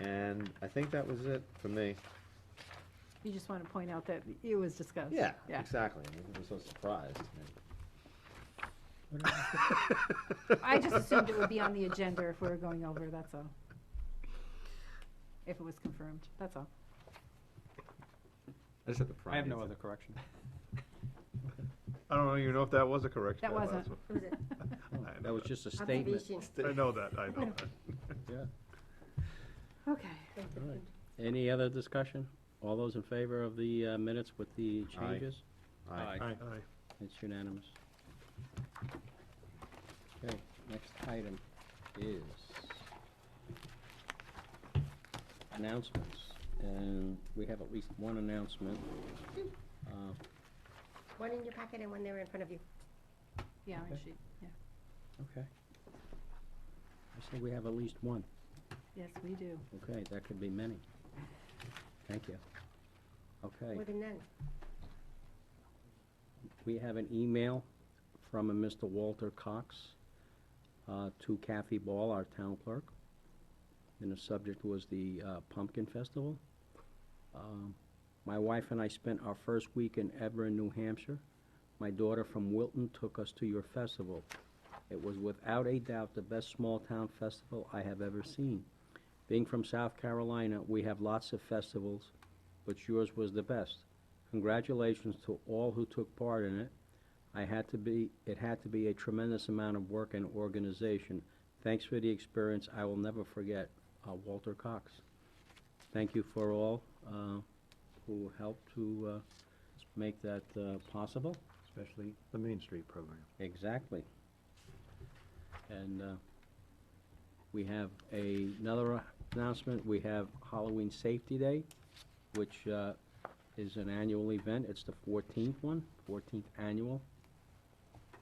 And I think that was it for me. You just want to point out that it was discussed. Yeah, Yeah. exactly. I was so surprised. I just assumed it would be on the agenda if we were going over, that's all. If it was confirmed, that's all. I just had the I have no other correction. I don't even know if that was a correction. That that wasn't. last one. Who's it? I know That was that. just a statement. Observation. I know that, I know that. Okay. Any other discussion? All those in favor of the uh, minutes with the Aye. changes? Aye. Aye. It's unanimous. Okay, next item is announcements. And we have at least one announcement. Uh, One in your packet and one there in front of you. Yeah, I Okay. should- yeah. Okay. I say we have at least one. yes, we do. Okay, that could be many. Thank you. Okay, More than none. we have an email from a Mr. Walter Cox uh, to Kathy Ball, our town clerk, and the subject was the uh, Pumpkin Festival. Um, My wife and I spent our first week in Eber, New Hampshire. My daughter from Wilton took us to your festival. It was without a doubt the best small-town festival I have ever seen. Being from South Carolina, we have lots of festivals, but yours was the best. Congratulations to all who took part in it. I had to be, it had to be a tremendous amount of work and organization. Thanks for the experience. I will never forget, uh, Walter Cox. Thank you for all, uh, who helped to, uh, make that, uh, possible. especially the Main Street program. Exactly. And uh, we have a- another announcement, we have Halloween Safety Day, which uh, is an annual event, it's the 14th one, 14th annual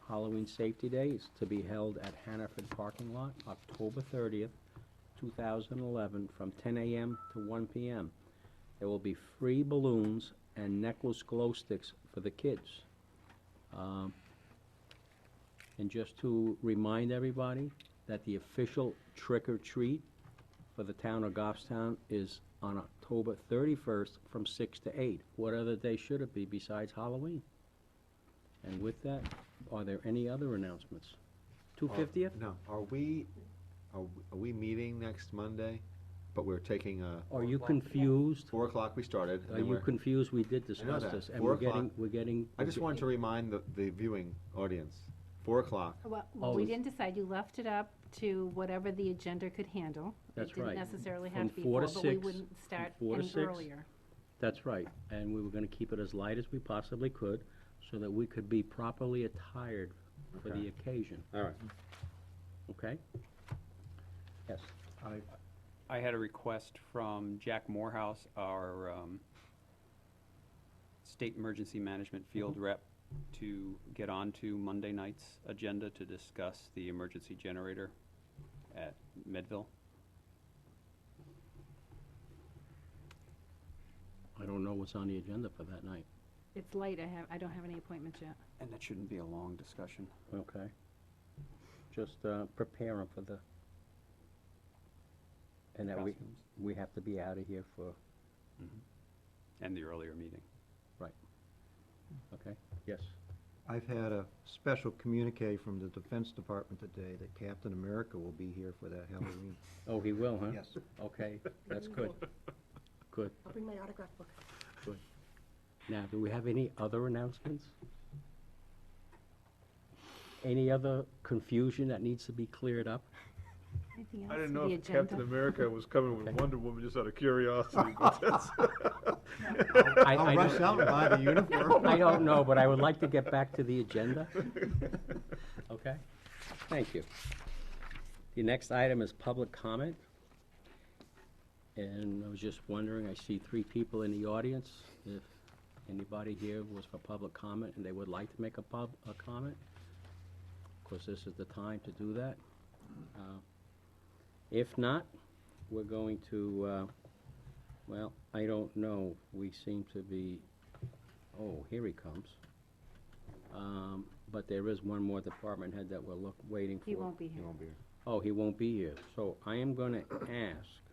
Halloween Safety Day, it's to be held at Hannaford Parking Lot, October 30th, 2011, from 10 a.m. to 1 p.m. There will be free balloons and necklace glow sticks for the kids. Um, and just to remind everybody that the official trick or treat for the town of Goffstown is on October thirty-first from six to eight. What other day should it be besides Halloween? And with that, are there any other announcements? Two fiftieth? No, are we, are we- are we meeting next Monday? But we're taking a, Are you confused? four o'clock we started. and Are then Uh, you we're- confused? We did discuss that. this, and Four we're getting, o'clock. we're getting. I just wanted to remind the, the viewing audience, four o'clock. Well, Oh, we is- didn't decide, you left it up to whatever the agenda could handle. That's right. It didn't necessarily From have to be four, four to but we six, wouldn't from start four to any six. earlier. That's right, and we were gonna keep it as light as we possibly could, so that we could be properly attired for the Okay. occasion. All right. Okay? Yes. I had a request from Jack Morehouse, our um, State Emergency Management Field Rep, to get onto Monday night's agenda to discuss the emergency generator at Medville. I don't know what's on the agenda for that night. It's late, I have, I don't have any appointments yet. And that shouldn't be a long discussion. Okay. Just uh, prepare 'em for the, and that we, Costumes. we have to be out of here for, And the earlier meeting. okay? Yes. I've had a special communique from the Defense Department today that Captain America will be here for that Halloween. Oh, he will, huh? Yes. Okay, that's good. Good. I'll bring my autograph book. Now, do we have any other announcements? Any other confusion that needs to be cleared up? Anything else I for didn't know the if Captain agenda? America was coming with Wonder Woman just out of curiosity, but that's. I- I I'll don't- rush out and buy the uniform. I don't know, but I would like to get back to the agenda. Okay, thank you. The next item is public comment. And I was just wondering, I see three people in the audience, if anybody here was for public comment and they would like to make a pub, a comment. Of course, this is the time to do that. Uh, If not, we're going to, uh, well, I don't know, we seem to be Oh, here he comes. Um, But there is one more department head that we're look, waiting for. He won't be here. be here. Oh, he won't be here. So I am gonna ask